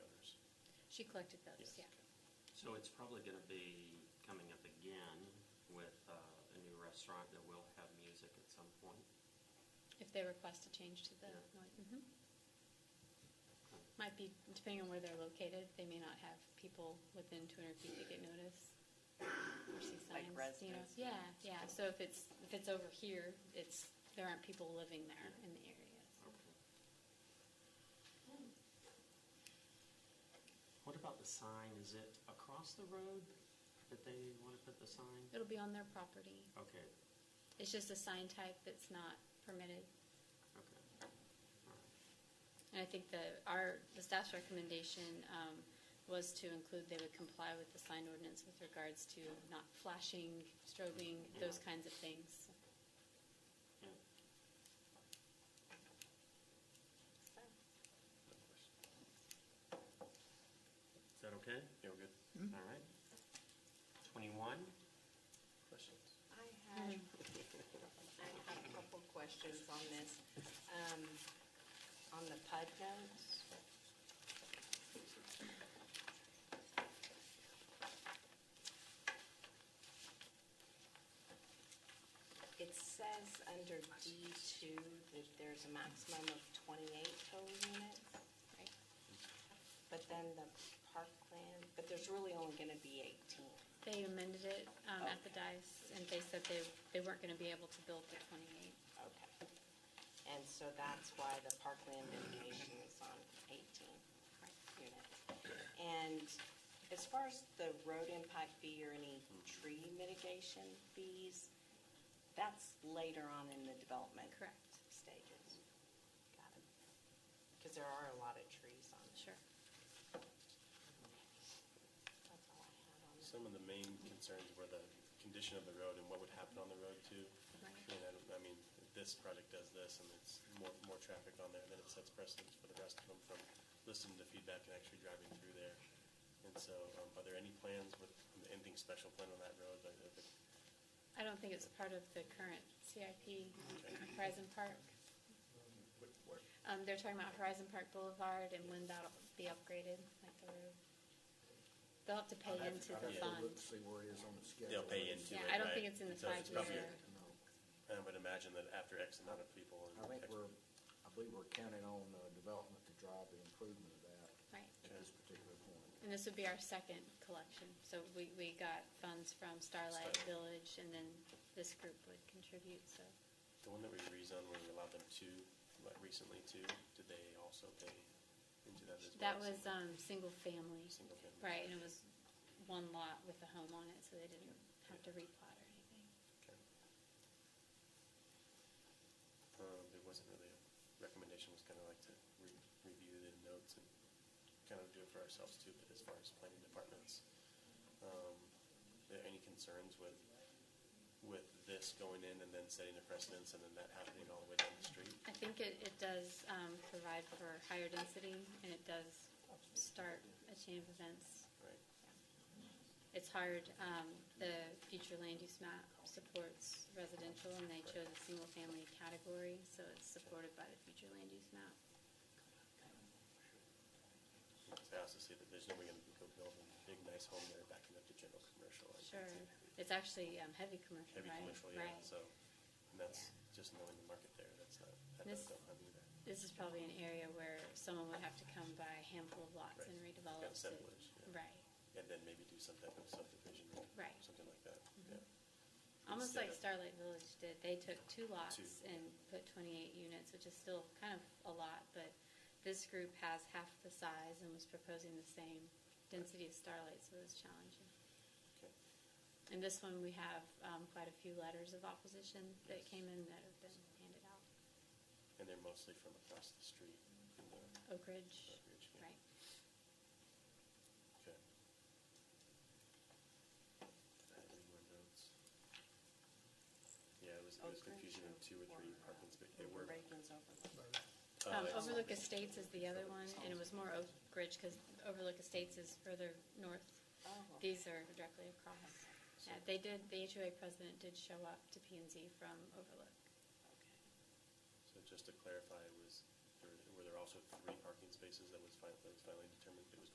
She collected those, yeah. Yes. So it's probably gonna be coming up again with uh, a new restaurant that will have music at some point. If they request a change to the Yeah. noise. mhm. Might be, depending on where they're located, they may not have people within 200 feet that get notice. Or see Like signs, you know. residents. Yeah, yeah, so if it's, if it's over here, it's, there aren't people living there in the area. so. Hmm. What about the sign? Is it across the road that they want to put the sign? It'll be on their property. Okay, It's just a sign type that's not permitted. okay. All right. And I think the, our, the staff's recommendation um, was to include, they would comply with the sign ordinance with regards to not flashing, strobing, those Yeah. kinds of things. Yeah. So, Is that okay? Yeah, we're good. All right. 21, Questions? I have, I have a couple questions on this. Um, On the PUD notes. It says under D2 that there's a maximum of 28 total units, right? but then the parkland, but there's really only going to be 18. They amended it um, at the dice, and they said they, they weren't going to be able to build the 28. Okay. And so that's why the parkland mitigation is on 18 units. And as far as the road impact fee or any tree mitigation fees, that's later on in the development. Correct. Stages. Got it. Because there are a lot of trees on it. Sure. That's all I had on that. Some of the main concerns were the condition of the road and what would happen on the road too. Right. You know, I mean, this project does this and it's more, more traffic on there, and then it sets precedence for the rest of them from listening to feedback and actually driving through there. And so, um, are there any plans with, anything special planned on that road? Like, if it- I don't think it's part of the current CIP Horizon Park. Um, They're talking about Horizon Park Boulevard and when that'll be upgraded, like the road. They'll have to I'd pay have- into I'd the have to look fund. to See where it is on the schedule. They'll pay into it, Yeah, I don't think right? it's in the So it's five-year. probably- No. I would imagine that after X amount of people. and I think X- we're, I believe we're counting on uh development to drive the improvement of that Right. at this particular point. And this would be our second collection. So we, we got funds from Starlight Starlight. Village, and then this group would contribute, so. The one that we rezoned, where we allowed them to, like recently too, did they also pay into that as well? That was, um, single family. Single family. Right, and it was one lot with a home on it, so they didn't have to replot or anything. Okay. Um, There wasn't really a recommendation, was kind of like to re- review the notes and kind of do it for ourselves too, but as far as planning departments, um, are there any concerns with, with this going in and then setting a precedence and then that happening all the way down the street? I think it, it does um, provide for higher density, and it does start a chain of events. Right? It's hard, um, the future land use map supports residential, and they chose a single-family category, so it's supported by the future land use map. It's also say that there's no way going to go build a big nice home there backing up to general commercial. I think, Sure, too. it's actually um, heavy commercial, Heavy right? commercial, yeah, Right. so, and that's just knowing the market there, that's not, that This- doesn't help either. This is probably an area where someone would have to come by a handful of lots and Right. redevelop. Kind of it. assemblage, yeah. Right. And then maybe do some type of subdivision or Right. Mm-hmm. something like that, yeah. Almost Instead like of- Starlight Village did. They took two lots Two. and put 28 units, which is still kind of a lot, but this group has half the size and was proposing the same density as Starlight, so it was challenging. Okay. And this one, we have um, quite a few letters of opposition that came in that have been handed out. And they're mostly from across the street. in the- Oak Ridge, Oak Ridge, yeah. right? Okay. Did I have any more notes? Yeah, it was, it was Oak Ridge confusion of two or three apartments, but they were. Reagan's overlook. uh, Um, it's- Overlook Estates is the other one, and it was more Oak Ridge because Overlook Estates is further north. Oh. These are directly across. Yeah, they did, the HOA president did show up to P and Z from Overlook. Okay. So just to clarify, it was, there were- were there also three parking spaces that was finally, that was finally determined it was